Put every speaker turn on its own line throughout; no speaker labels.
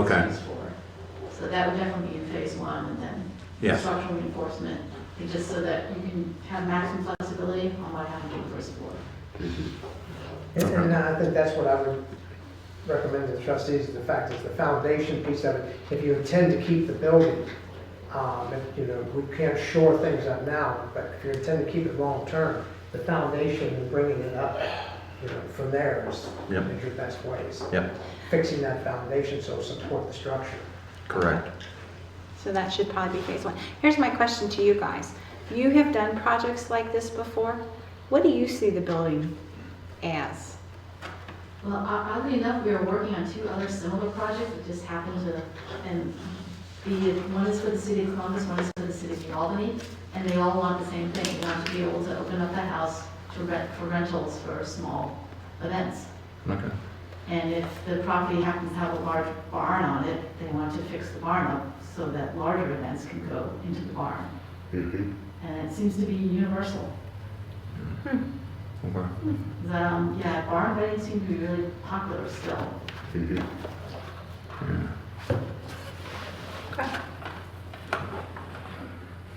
Okay,
used for. So that would definitely be in phase one, and then
yeah,
structural reinforcement, and just so that you can have maximum flexibility on what happened to the first floor.
And- And uh, I think that's what I would recommend to trustees, the fact is the foundation piece of it, if you intend to keep the building, um, if, you know, we can't shore things up now, but if you intend to keep it long-term, the foundation and bringing it up, you know, from there is
Yep.
is your best ways.
Yep.
Fixing that foundation so it'll support the structure.
correct.
So that should probably be phase one. Here's my question to you guys. You have done projects like this before. What do you see the building as?
Well, o- oddly enough, we are working on two other similar projects that just happened to, and the, one is for the city of Columbus, one is for the city of New Albany, and they all want the same thing, they want to be able to open up the house to rent, for rentals for small events.
Okay.
And if the property happens to have a large barn on it, they want to fix the barn up so that larger events can go into the barn.
Mm-hmm,
And it seems to be universal.
Okay.
The, um, yeah, barn weddings seem to be really popular still.
mm-hmm.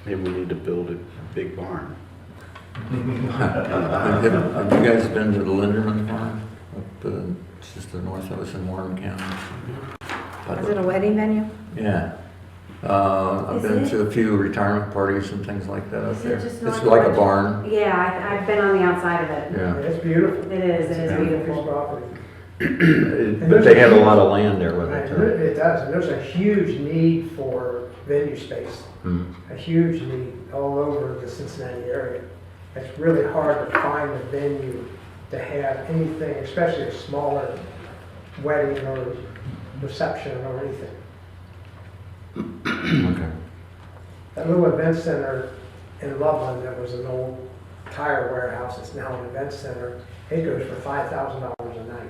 Maybe we need to build a big barn.
Uh, Have have you guys been to the Linderman Farm? Up, uh, it's just the north of us in Warren County.
Is it a wedding venue?
Yeah. Uh,
Is
I've been
it?
to a few retirement parties and things like that up
Is it
there.
just
It's
not-
like a barn,
Yeah, I, I've been on the outside of it.
yeah.
It's beautiful.
It is, it is
It's
beautiful.
property.
It- But they have a lot of land there with it,
Right,
too.
It does, and there's a huge need for venue space.
Hmm.
a huge need all over the Cincinnati area. It's really hard to find a venue to have anything, especially a smaller wedding or reception or anything.
Okay.
That little event center in Loveland that was an old tire warehouse, it's now an event center, it goes for five thousand dollars a night.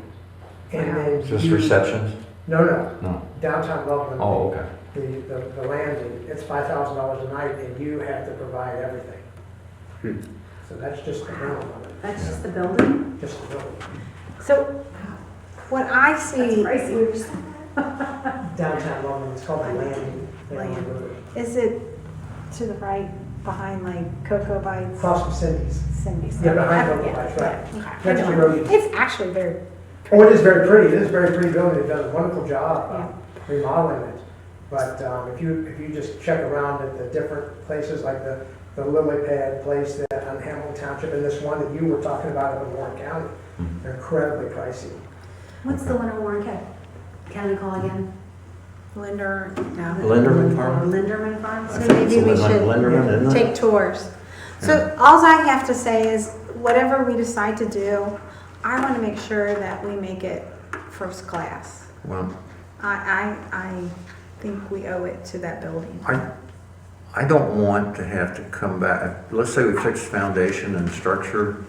And then.
Just
you-
receptions?
No, no,
No.
downtown Loveland.
Oh, okay.
the, the, the landing, it's five thousand dollars a night and you have to provide everything.
Hmm.
So that's just the minimum of it,
That's just the building?
just the minimum.
So what I
That's
see
pricey.
Downtown London, it's called the landing. They don't
Land.
really-
is it to the right behind like Cocoa Bites,
Across from Cindy's.
Cindy's?
Yeah, behind
Oh,
Cocoa
yeah,
Bites, right.
yeah, okay.
Next to Rose's.
It's actually very,
Oh, it is very pretty, it is a very pretty building, it does a wonderful job uh, remodeling it. But um, if you, if you just check around at the different places, like the, the lily pad place that on Hamilton Township and this one that you were talking about up in Warren County,
Mm-hmm.
they're incredibly pricey.
What's the one in Warren County? County call again?
Linder, no.
Linderman Farm?
Linderman Farms?
I
So
think it's
maybe we
Lin-
should
Linderman, isn't it?
take tours. So alls I have to say is, whatever we decide to do, I want to make sure that we make it first class.
Well,
I, I, I think we owe it to that building.
I, I don't want to have to come back, let's say we fix foundation and structure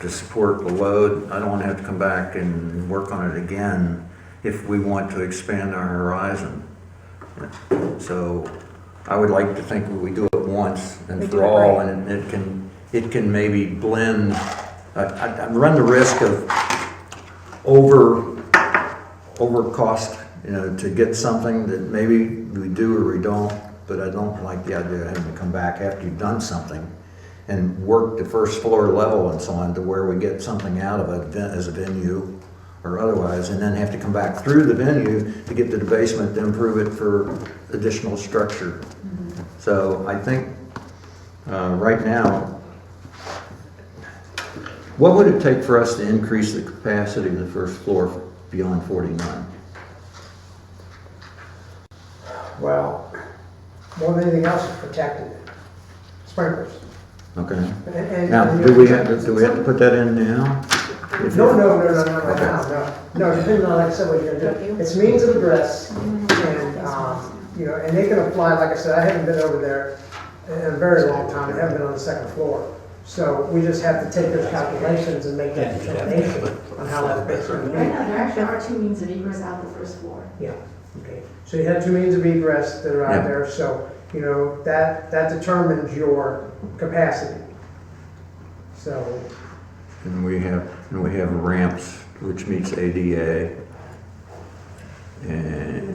to support the load, I don't want to have to come back and work on it again if we want to expand our horizon. So I would like to think we do it once
We
and
do
for
it
all,
right.
and it can, it can maybe blend, I, I I run the risk of over, over cost, you know, to get something that maybe we do or we don't, but I don't like the idea of having to come back after you've done something and work the first floor level and so on to where we get something out of it ven- as a venue or otherwise, and then have to come back through the venue to get to the basement to improve it for additional structure. So I think, uh, right now, what would it take for us to increase the capacity of the first floor beyond 49?
Well, more than anything else, it's protecting it. Sprinklers.
Okay?
And- and-
Now, do we have, to do we have to put that in now? If-
No, no, no, no, no, no, no, no, no, depending on, like I said, what you're gonna do, it's means of address, and, um, you know, and they can apply, like I said, I haven't been over there in a very long time, I haven't been on the second floor, so we just have to take those calculations and make that determination on how that fits.
Right now, there actually are two means of egress out the first floor.
Yeah, okay. So you have two means of egress that are out
Yeah.
there, so, you know, that, that determines your capacity. So,
And we have, and we have ramps, which meets ADA. And